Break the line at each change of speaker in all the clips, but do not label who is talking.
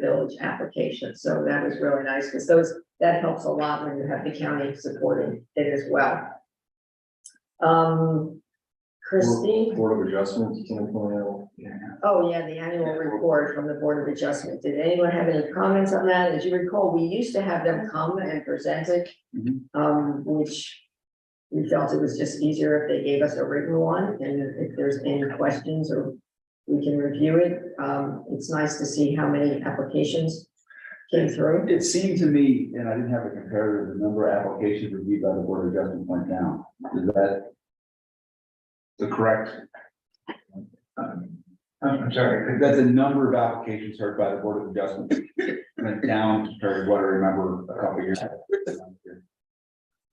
village application, so that was really nice, because those, that helps a lot when you have the county supporting it as well. Um, Christine?
Board of Adjustments, can I point out?
Oh, yeah, the annual report from the Board of Adjustment. Did anyone have any comments on that? As you recall, we used to have them come and present it.
Mhm.
Um, which we felt it was just easier if they gave us a written one and if there's any questions or we can review it. Um, it's nice to see how many applications came through.
It seemed to me, and I didn't have a comparative, the number of applications reviewed by the Board of Adjustment went down. Is that the correct? um,
I'm sorry.
That the number of applications heard by the Board of Adjustment went down compared to what I remember a couple of years ago.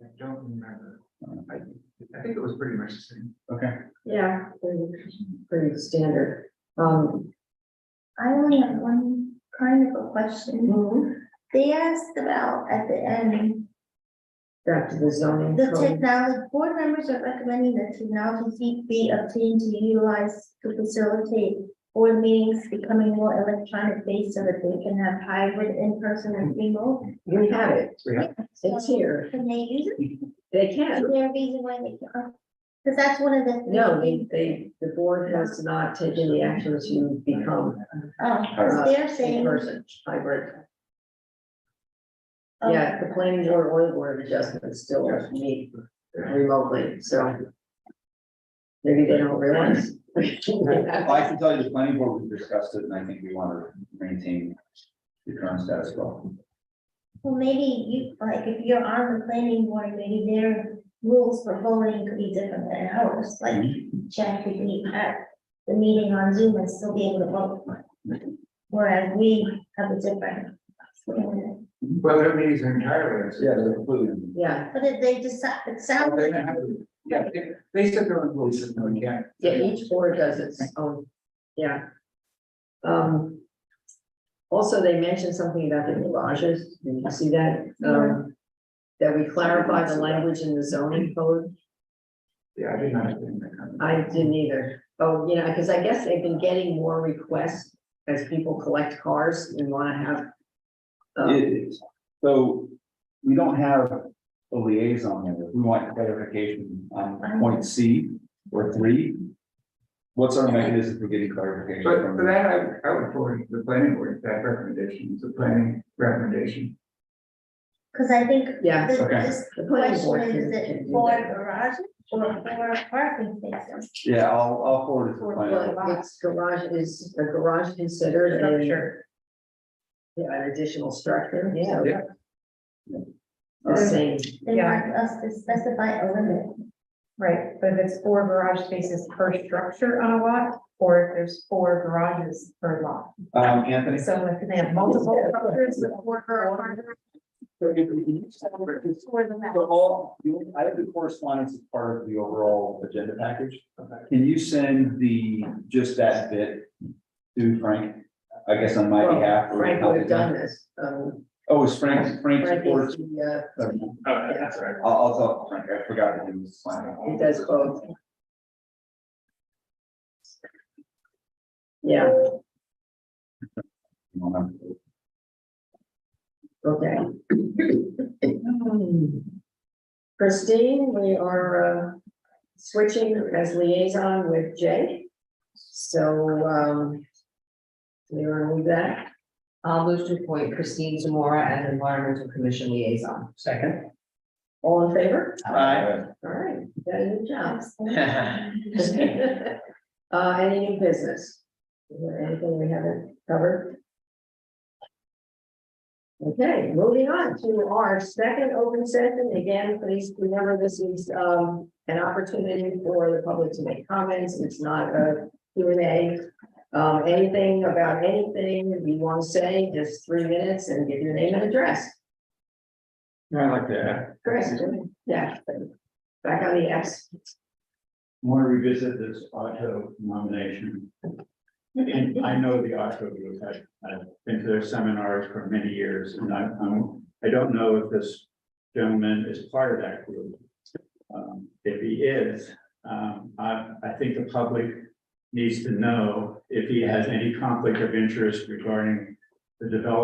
I don't remember.
Um, I-
I think it was pretty much the same.
Okay,
Yeah, pretty- pretty standard. Um,
I only have one kind of a question. They asked about at the end,
back to the zoning.
the
code.
technology, board members are recommending that technology be obtained to utilize to facilitate board meetings becoming more electronic based so that they can have hybrid in-person and remote.
We have it.
Yeah.
It's here.
Can they use it?
They
Is
can.
there a reason why they can't? Because that's one of the.
No, they- they, the board has not taken the action to become
Oh, 'cause they're
a
saying,
person hybrid.
oh,
Yeah, the planning board or the board of adjustment still meet remotely, so. Maybe they don't realize.
Well, I can tell you the planning board, we discussed it, and I think we want to maintain the current status quo.
well, maybe you, like, if you're on the planning board, maybe their rules for voting could be different than ours, like. Chad could be at the meeting on Zoom and still be able to vote. Whereas we have a different. But
Well, their meetings are entirely.
Yeah, they're completely.
Yeah,
if they decide, it
They're
sounds,
gonna have to- Yeah, they- they set their own rules, and we can't.
yeah, each board does its own, yeah. Um. Also, they mentioned something about the garages, did you see that? Um, that we clarify the language in the zoning code.
Yeah, I did not think that.
I didn't either. Oh, you know, because I guess they've been getting more requests as people collect cars and want to have. um,
It is. So we don't have a liaison there. We want clarification on point C or three. What's our mechanism for getting clarification?
But for
from
that, I, I would forward to the planning board that recommendation, it's a planning recommendation.
because I think
Yeah,
the
okay.
this
the planning
question
board.
is,
can-
is
can
it
do
for
that.
garage or for parking spaces?
Yeah, I'll, I'll forward it to the planning. board.
Well, it's garage is, a garage considered a. Yeah, an additional structure. Yeah.
Yeah.
The same,
They want us to specify a limit.
Right, but if it's four garage spaces per structure on a lot, or if there's four garages per lot.
Um, Anthony,
So if they have multiple structures with four garages.
so if we can use that word, it's- so all, you- I have the correspondence as part of the overall agenda package. Can you send the, just that bit to Frank? I guess on my
Well,
behalf. or-
Frank would have done this, um,
Oh, is Frank, Frank's
Frank
report?
is the, uh,
I'll,
Oh, that's right.
I'll talk, to Frank, I forgot that he was planning.
uh, he does both. Yeah, okay. Christine, we are uh, switching as liaison with Jay. So um, we are with that.
I'll move to appoint Christine Zamora as Environmental Commission Liaison.
Second.
All in favor?
Aye.
All right, you got a new job.
Aye.
Uh, any new business? Is there anything we haven't covered? Okay, moving on to our second open session. Again, please remember this is, um, an opportunity for the public to make comments. It's not a Q and A. Um, anything about anything that you want to say, just three minutes and give your name and address.
I like that.
Chris, yeah, back on the X.
want to revisit this Otto nomination. And I know the Otto group, I, I've been to their seminars for many years, and I, I'm, I don't know if this gentleman is part of that group. Um, if he is, um, I, I think the public needs to know if he has any conflict of interest regarding the developer